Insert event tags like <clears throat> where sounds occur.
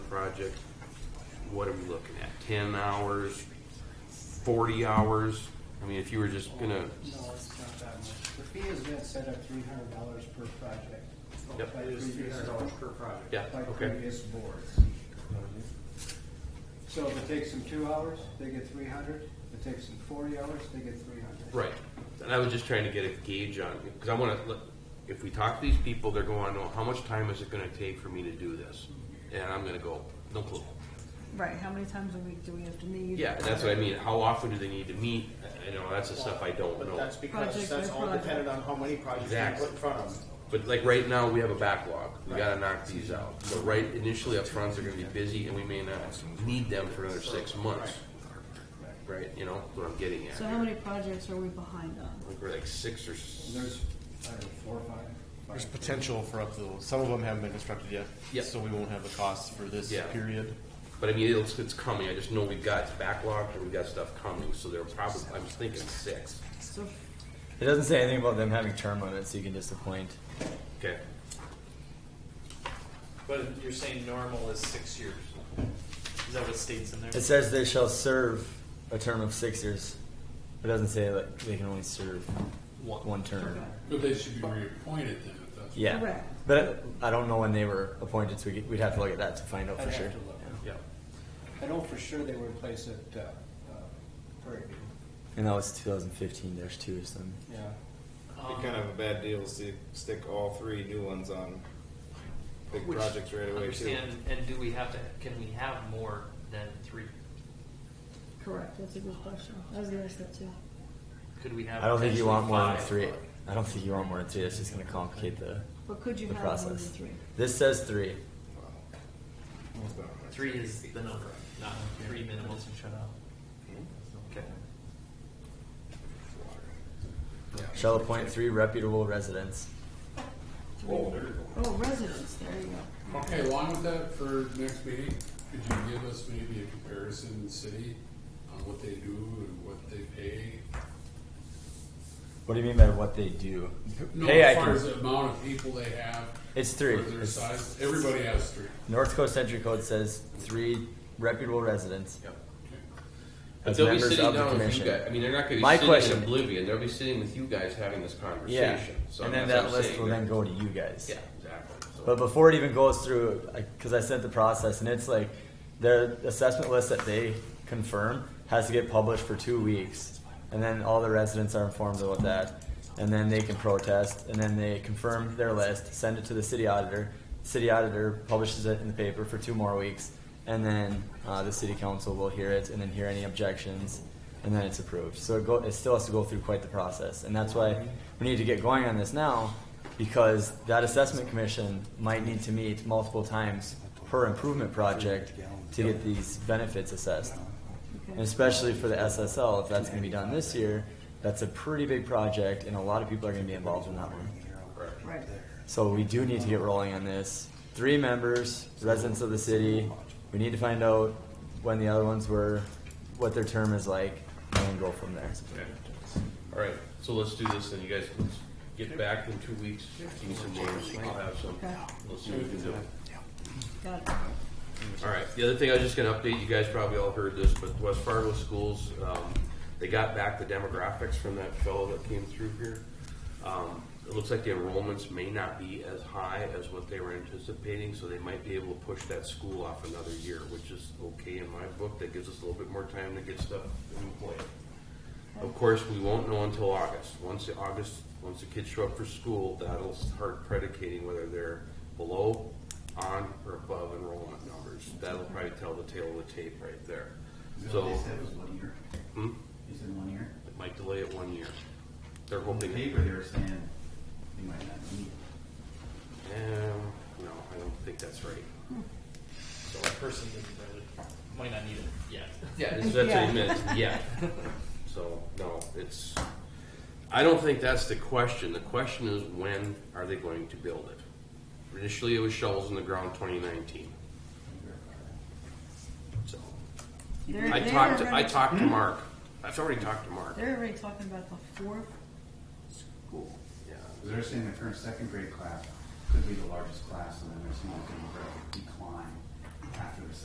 project, what are we looking at? Ten hours, forty hours? I mean, if you were just gonna, No, it's not that much. The fee has been set at three hundred dollars per project. Yep. By It is three previous- hundred dollars per project. yeah, By okay, previous boards. So if it takes them two hours, they get three hundred. If it takes them forty hours, they get three hundred. right. And I was just trying to get a gauge on, because I wanna, look, if we talk to these people, they're going, know how much time is it gonna take for me to do this? And I'm gonna go, no clue. Right, how many times a week do we have to need? Yeah, that's what I mean. How often do they need to meet? I- I know that's the stuff I don't But know. that's because Project that's by all project. dependent on how many projects you Exactly. put in front of them. But like right now, we have a backlog. We gotta knock these out. So right initially up front, they're gonna be busy and we may not need them for another six months. Right, you know, what I'm getting at. So how many projects are we behind on? I think we're like six or, s- There's, I don't know, four, or five. There's potential for up to, some of them haven't been constructed yet. Yeah. So we won't have the costs for this Yeah. period. but I mean, it's, it's coming. I just know we've got backlogs and we've got stuff coming, so they're probably, I'm thinking six. So, It doesn't say anything about them having term limits, so you can just appoint. Okay. But you're saying normal is six years. Is that what states in there? It says they shall serve a term of six years. It doesn't say that they can only serve One. one term. But they should be reappointed then, if that's. Yeah. Correct. But I don't know when they were appointed, so we- we'd have to look at that to find out I'd for have sure. to look. Yeah. I know for sure they were in place at, uh, uh, Prairie View. And that was 2015 There's two or something. Yeah. Um, Be kind of a bad deal to see, stick all three new ones on big Which- projects right away too. Understand, and do we have to, can we have more than three? correct, that's a good question. I was gonna ask that too. Could we have? I don't think you want more than potentially three. five? I don't think you want more than three. That's just going to complicate the, But could you the have more than process. three? This says three. Three is the number, not three minimums. And shut up. Hmm? Okay. Shall appoint three reputable residents. Oh, residents, there you go. Okay, along with that, for next meeting, could you give us maybe a comparison city on what they do and what they pay? What do you mean by what they do? No, Pay, I as far can- as the amount of people they have. It's three. Or their It's- size, everybody has three. North Coast Entry Code says three reputable residents. Yep. But As they'll be members sitting of the down with you commission. guys. I mean, they're not My gonna be sitting question- in oblivion. They'll be sitting with you guys having this Yeah, conversation. So and I mean, then that that's what I'm list saying. will then go to you guys. Yeah, exactly. So- But before it even goes through, because I sent the process, and it's like the assessment list that they confirm has to get published for two weeks, and then all the residents are informed about that, and then they can protest, and then they confirm their list, send it to the city auditor. City auditor publishes it in the paper for two more weeks, and then uh, the city council will hear it, and then hear any objections, and then it's approved. So it, go, it still has to go through quite the process, and that's why we need to get going on this now because that assessment commission might need to meet multiple times per improvement project to get these benefits assessed. And Okay. especially for the SSL, if that's gonna be done this year, that's a pretty big project and a lot of people are gonna be involved in that one. Right. So we do need to get rolling on this. Three members, residents of the city, we need to find out when the other ones were, what their term is like, and then go from there. Okay. All right, so let's do this, then you guys let's get back in two weeks, give me some names, I'll have some, Okay. let's see what we can do. Got it. All right, the other thing I was just gonna update, you guys probably all heard this, but West Fargo Schools, um, they got back the demographics from that fellow that came through here. Um, it looks like the enrollments may not be as high as what they were anticipating, so they might be able to push that school off another year, which is okay in my book, that gives us a little bit more time to get stuff in play. Of course, we won't know until August. Once the August, once the kids show up for school, that'll start predicating whether they're below, on, or above enrollment numbers. That'll probably tell the tail of the tape right there. So was one year. Hmm? They said one year. it might delay it one year. They're On the hoping. paper, they were saying they might not need it. Um, no, I don't think that's right. So a person doesn't really, might not need it yet. Yeah, that's what Yeah. I meant. Yeah. <laughs> So no, it's. I don't think that's the question. The question is when are they going to build it? Initially, it was shovels in the ground, 2019. So They're- I they're talked. To, I already- talked <clears throat> to Mark. I've already talked to Mark. They're already talking about the fourth school. Yeah. Because they're saying the current second grade class could be the largest class, and then they're seeing a demographic decline